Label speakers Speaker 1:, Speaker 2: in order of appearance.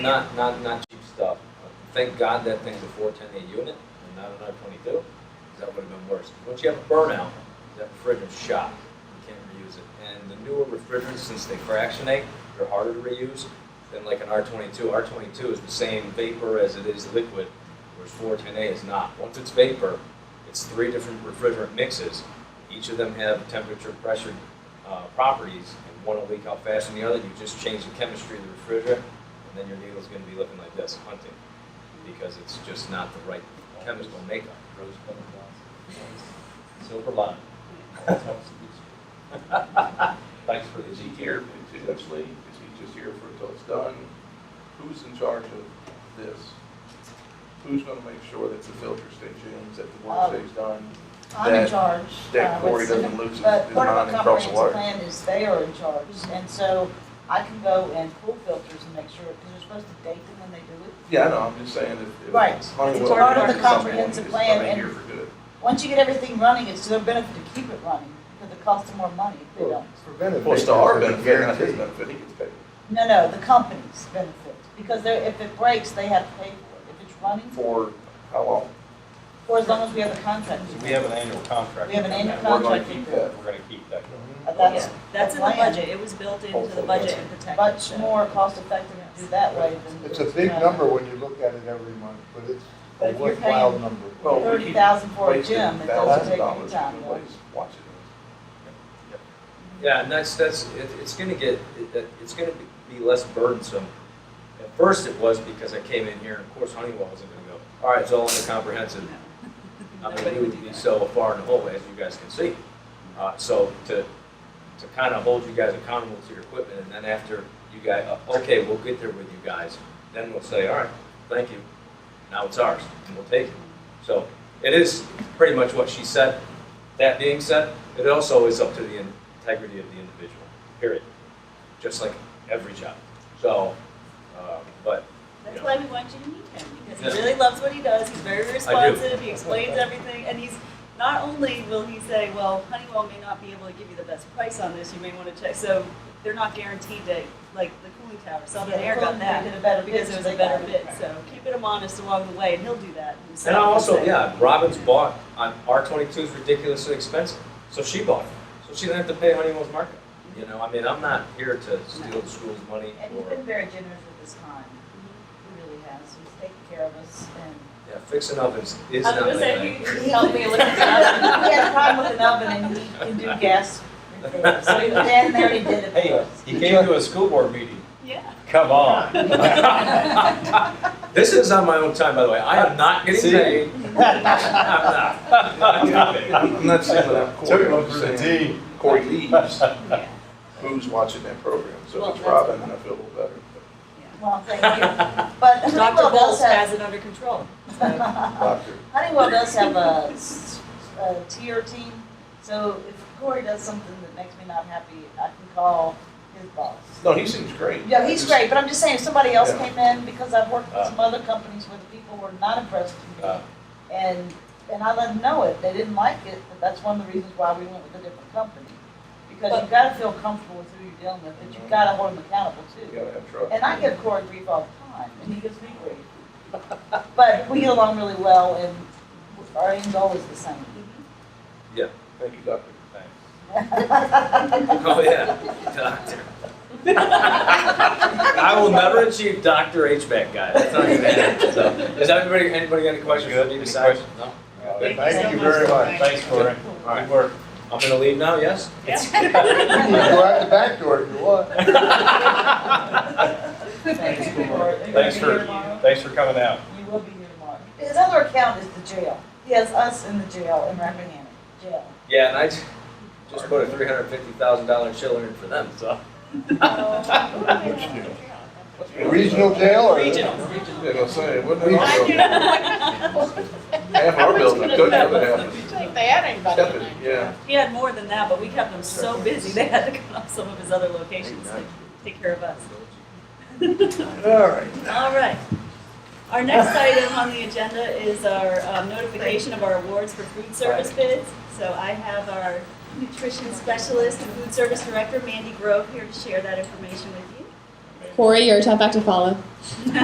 Speaker 1: Not, not, not cheap stuff. Thank God that thing's a four ten eight unit and not an R twenty-two, because that would have been worse. Once you have a burnout, that refrigerant's shot. You can't reuse it. And the newer refrigerants, since they fractionate, they're harder to reuse than like an R twenty-two. R twenty-two is the same vapor as it is liquid, whereas four ten A is not. Once it's vapor, it's three different refrigerant mixes. Each of them have temperature, pressure, uh, properties, and one will leak out faster than the other. You just change the chemistry of the refrigerant, and then your needle's gonna be looking like this, hunting, because it's just not the right chemical makeup.
Speaker 2: Rose colored glasses. Silver line. Thanks for the
Speaker 3: Is he
Speaker 2: detail.
Speaker 3: here, is this lady, is he just here for until it's done? Who's in charge of this? Who's gonna make sure that the filter stays in, that the
Speaker 4: Um,
Speaker 3: water stays done?
Speaker 4: I'm in
Speaker 3: that-
Speaker 4: charge.
Speaker 3: that
Speaker 4: uh,
Speaker 3: Cory
Speaker 4: with-
Speaker 3: doesn't lose his-
Speaker 4: But
Speaker 3: his
Speaker 4: part of
Speaker 3: mind
Speaker 4: a
Speaker 3: and cross the
Speaker 4: comprehensive
Speaker 3: wire.
Speaker 4: plan is they are in charge, and so I can go and pull filters and make sure, because you're supposed to date them when they do it.
Speaker 3: Yeah, I know, I'm just saying if- if.
Speaker 4: Right.
Speaker 3: Honeywell
Speaker 4: It's part of
Speaker 3: uses someone,
Speaker 4: the comprehensive
Speaker 3: it's
Speaker 4: plan
Speaker 3: gonna be
Speaker 4: and-
Speaker 3: here for good.
Speaker 4: Once you get everything running, it's to their benefit to keep it running, because it costs them more money if they don't.
Speaker 5: Preventive.
Speaker 3: Well, it's to our
Speaker 5: maintenance is
Speaker 3: benefit, not his
Speaker 5: guaranteed.
Speaker 3: benefit, he gets paid.
Speaker 4: No, no, the companies benefit, because they're, if it breaks, they have to pay for it. If it's running,
Speaker 3: For how long?
Speaker 4: for as long as we have a contract.
Speaker 2: We have an annual contract.
Speaker 4: We have an annual
Speaker 3: We're gonna
Speaker 4: contract.
Speaker 3: keep
Speaker 4: with them.
Speaker 3: that.
Speaker 2: We're gonna keep that going.
Speaker 4: Uh,
Speaker 6: Yeah,
Speaker 4: That's
Speaker 6: that's in the
Speaker 4: plan.
Speaker 6: budget, it was built into the budget and protected.
Speaker 4: much more cost effective to do that way than. uh,
Speaker 5: It's a big number when you look at it every month, but it's
Speaker 4: But
Speaker 5: a
Speaker 4: if you're
Speaker 5: worthwhile
Speaker 4: paying-
Speaker 5: number.
Speaker 3: Well, we keep
Speaker 4: Thirty thousand for a
Speaker 3: Wasting
Speaker 4: gym, it doesn't
Speaker 3: thousands of
Speaker 4: take any
Speaker 3: dollars
Speaker 4: time,
Speaker 3: to
Speaker 4: though.
Speaker 3: waste watching
Speaker 1: Yeah, and that's, that's, it, it's gonna get, it- it, it's gonna be, be less burdensome. At first it was because I came in here, and of course Honeywell wasn't gonna go, all right, it's all under comprehensive. I mean,
Speaker 6: Nobody
Speaker 1: we
Speaker 6: would
Speaker 1: would
Speaker 6: do
Speaker 1: be
Speaker 6: that.
Speaker 1: so far in the hole, as you guys can see. Uh, so to, to kind of hold you guys accountable to your equipment, and then after you guys, uh, okay, we'll get there with you guys, then we'll say, all right, thank you, now it's ours, and we'll take it. So it is pretty much what she said. That being said, it also is up to the integrity of the individual, period, just like every job. So, uh, but
Speaker 6: That's why we want you to meet him, because he
Speaker 1: Yeah.
Speaker 6: really loves what he does, he's very responsive, he explains everything, and he's, not only will he say, well, Honeywell may not be able to give you the best price on this, you may wanna check, so they're not guaranteed to, like, the cooling tower, Southern Air got
Speaker 4: They did
Speaker 6: that,
Speaker 4: a better bid,
Speaker 6: because it was
Speaker 4: so
Speaker 6: a
Speaker 4: they
Speaker 6: better
Speaker 4: got it.
Speaker 6: bid, so keeping him honest along the way, and he'll do that himself.
Speaker 1: And I also,
Speaker 6: He'll say,
Speaker 1: yeah, Robin's bought, on R twenty-two is ridiculously expensive, so she bought it. So she didn't have to pay Honeywell's markup. You know, I mean, I'm not here to steal the school's money
Speaker 4: And he's
Speaker 1: or,
Speaker 4: been very generous with his time, he really has, he's taken care of us, and.
Speaker 1: yeah, fixing ovens is
Speaker 6: I
Speaker 1: not
Speaker 6: was
Speaker 1: my
Speaker 6: gonna
Speaker 1: thing.
Speaker 6: say, you can help me with that.
Speaker 4: He had a problem with an oven, and he can do gas repairs, so he was down there, and he did it for
Speaker 2: Hey,
Speaker 4: us.
Speaker 2: he came to a school board meeting.
Speaker 6: Yeah.
Speaker 2: Come on.
Speaker 1: This is on my own time, by the way. I am not getting
Speaker 2: See?
Speaker 1: paid. I'm not. not
Speaker 3: it. I'm not saying without Corey, I'm just saying
Speaker 5: T.
Speaker 3: Corey leaves,
Speaker 6: Yeah.
Speaker 3: who's watching that program? So
Speaker 6: Well,
Speaker 3: if it's
Speaker 6: that's-
Speaker 3: Robin, then I feel a little better.
Speaker 4: Well, thank you, but
Speaker 6: Dr.
Speaker 4: Honeywell
Speaker 6: Bowles
Speaker 4: does
Speaker 6: has
Speaker 4: have,
Speaker 6: it under control.
Speaker 3: Doctor,
Speaker 4: Honeywell does have a, s- a tier team, so if Corey does something that makes me not happy, I can call his boss.
Speaker 3: no, he seems great.
Speaker 4: Yeah, he's great, but I'm just saying, if somebody else
Speaker 3: Yeah.
Speaker 4: came in, because I've worked with
Speaker 1: Uh.
Speaker 4: some other companies where the people were not impressed with me,
Speaker 1: Uh.
Speaker 4: and, and I let them know it, they didn't like it, but that's one of the reasons why we went with a different company. Because you
Speaker 6: But-
Speaker 4: gotta feel comfortable with who you're dealing with, but you gotta hold them accountable
Speaker 3: You
Speaker 4: too.
Speaker 3: gotta have trust.
Speaker 4: And I give Corey grief all the time, and he gives me grief. But we get along really well, and our aim's always the same.
Speaker 3: Thank you, Doctor.
Speaker 1: Oh, yeah, doctor. I will never achieve Dr. HVAC guy. That's not even it. So, Is everybody, anybody got any questions for me
Speaker 2: Any
Speaker 1: besides?
Speaker 2: questions?
Speaker 1: No?
Speaker 5: Thank you very much.
Speaker 2: Thanks, Corey.
Speaker 1: All right.
Speaker 2: Good work.
Speaker 1: I'm gonna leave now, yes?
Speaker 5: You can go out the back door if you want.
Speaker 4: Thanks, Corey.
Speaker 2: Thanks for, thanks for coming out.
Speaker 4: You will be here tomorrow. His other account is the jail. He has us in the jail in Rappahannock, jail.
Speaker 1: Yeah, and I ju- just put a three hundred fifty thousand dollar chiller in for them, so.
Speaker 5: Regional jail or?
Speaker 3: Yeah, gonna say, wouldn't it also, half our building, took the other half.
Speaker 7: Like they had anybody.
Speaker 3: Step it, yeah.
Speaker 6: He had more than that, but we kept him so busy, they had to cut off some of his other locations to take care of us.
Speaker 3: All right.
Speaker 6: All right. Our next item on the agenda is our um, notification of our awards for food service bids. So I have our nutrition specialist and food service director, Mandy Grove, here to share that information with you.
Speaker 7: Corey, you're a tough act to follow.